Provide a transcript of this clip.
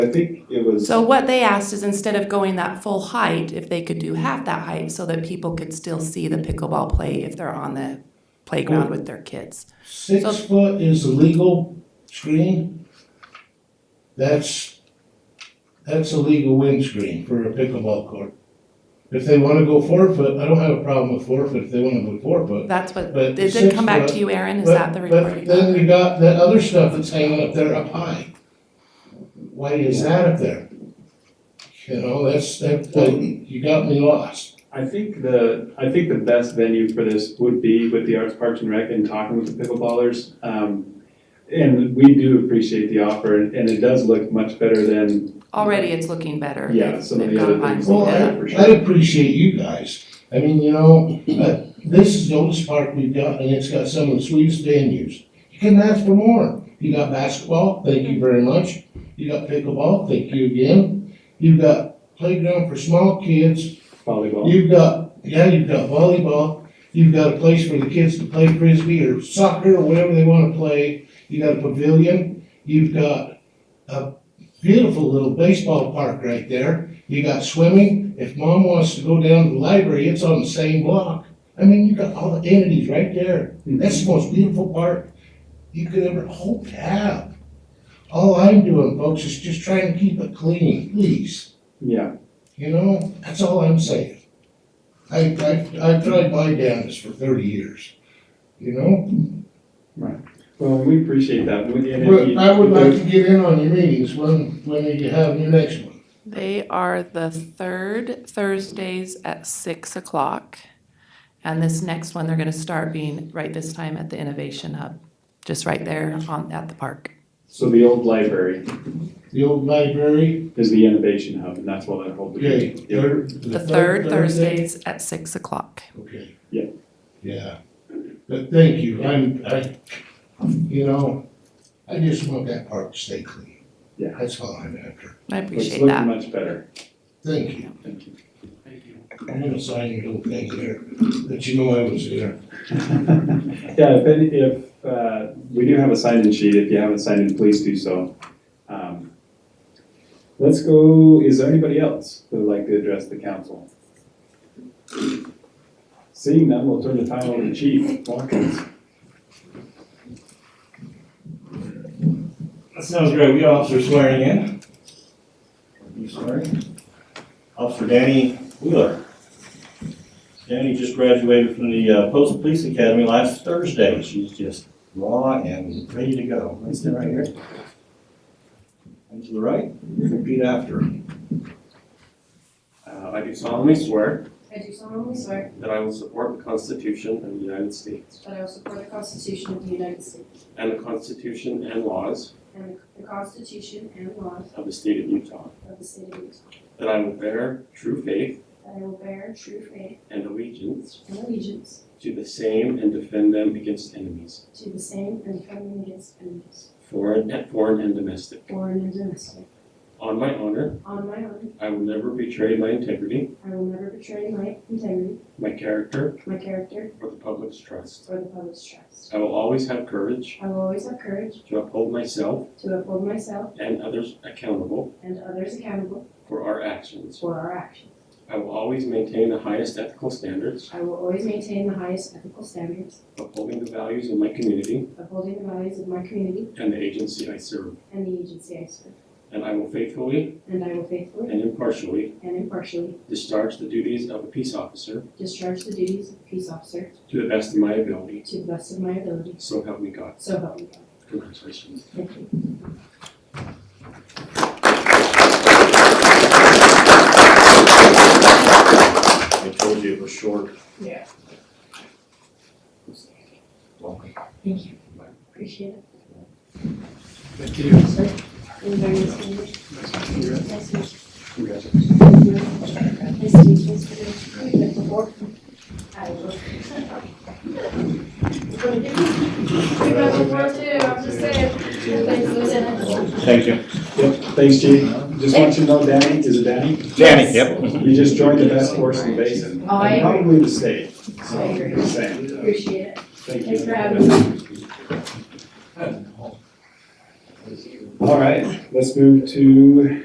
I think it was. So what they asked is instead of going that full height, if they could do half that height so that people could still see the pickleball play if they're on the playground with their kids. So- Six foot is the legal screen. That's, that's a legal windscreen for a pickleball court. If they wanna go four foot, I don't have a problem with four foot if they wanna go four foot. That's what, But did it six come back foot- to you, Aaron? Is But- that the recording? But then we got that other stuff that's hanging up there up high. Why is that up there? You know, that's, that, that- you got me lost. I think the, I think the best venue for this would be with the Arts Parks and Rec and talking with the pickleballers. Um, and we do appreciate the offer and and it does look much better than, Already it's looking better. Yeah, They've- some of they've the other gone by. things. Well, Yeah, for I, sure. I appreciate you guys. I mean, you know, uh, this is the oldest park we've got, and it's got some of the sweetest venues. You couldn't ask for more. You got basketball, thank you very much. You got pickleball, thank you again. You've got playground for small kids. volleyball. You've got, yeah, you've got volleyball, you've got a place for the kids to play frisbee or soccer or whatever they wanna play. You got a pavilion, you've got a beautiful little baseball park right there. You got swimming, if mom wants to go down to the library, it's on the same block. I mean, you got all the entities right there. That's the most beautiful park you could ever hope to have. All I'm doing, folks, is just trying to keep it clean, please. Yeah, You know, that's all I'm saying. I, I, I've tried my damnedest for thirty years, you know? well, we appreciate that. We- and if But you- I would like to get in on your meetings when, when you have your next one. They are the third Thursdays at six o'clock. And this next one, they're gonna start being right this time at the Innovation Hub, just right there on, at the park. So the old library The old library, is the innovation hub and that's what that whole. okay, Yep. third, The the third Thursday? Thursdays at six o'clock. Okay. Yeah. Yeah, but thank you, I'm, I, you know, I just want that park to stay clean. Yeah. That's all I'm after, I It's appreciate looking that. much better. thank you. Thank you. I'm gonna sign your little thing there, that you know I was there. Yeah, if, any- if, uh, we do have a sign-in sheet, if you haven't signed in, please do so. Um, Let's go, is there anybody else that would like to address the council? Seeing none, we'll turn the time over to Chief Watkins. That sounds great. We got officer swearing in. You swearing? Officer Danny Wheeler. Danny just graduated from the uh, Post Police Academy last Thursday. She's just raw and ready to go. Right there, right here. And to the right, repeat after. her. Uh, I do solemnly swear I do solemnly swear that I will support the Constitution of the United States that I will support the Constitution of the United States and the Constitution and laws and the Constitution and laws of the state of Utah, of the state of Utah, that I will bear true faith that I will bear true faith and allegiance and allegiance to the same and defend them against enemies, to the same and defend them against enemies, foreign and foreign and domestic. foreign and domestic. On my honor, On my own, I will never betray my integrity, I will never betray my integrity, my character, my character, or the public's trust. or the public's trust. I will always have courage I will always have courage to uphold myself to uphold myself and others accountable and others accountable for our actions. for our actions. I will always maintain the highest ethical standards, I will always maintain the highest ethical standards, upholding the values of my community upholding the values of my community and the agency I serve, and the agency I serve, and I will faithfully and I will faithfully and impartially and impartially discharge the duties of a peace officer Discharge the duties of peace officer to the best of my ability. to the best of my ability, So help me God. so help me God. Congratulations. Thank you. I told you it was short. Yeah. Welcome. Thank you. Appreciate it. Thank you. Enjoy your stay. Nice to meet you. Congratulations. Thank you. Nice to meet you. Nice to meet you. Before? I will. You guys were born too, I'm just saying. Thanks, Lieutenant. Thank you. Yep, thanks, Chief. Just want you to know Danny, is it Danny? Danny, yep. You just joined the best horse in the basin. Oh, I and agree. Probably the state. So, I agree. just saying. Appreciate it. Thank you. Thanks for having me. All right, let's move to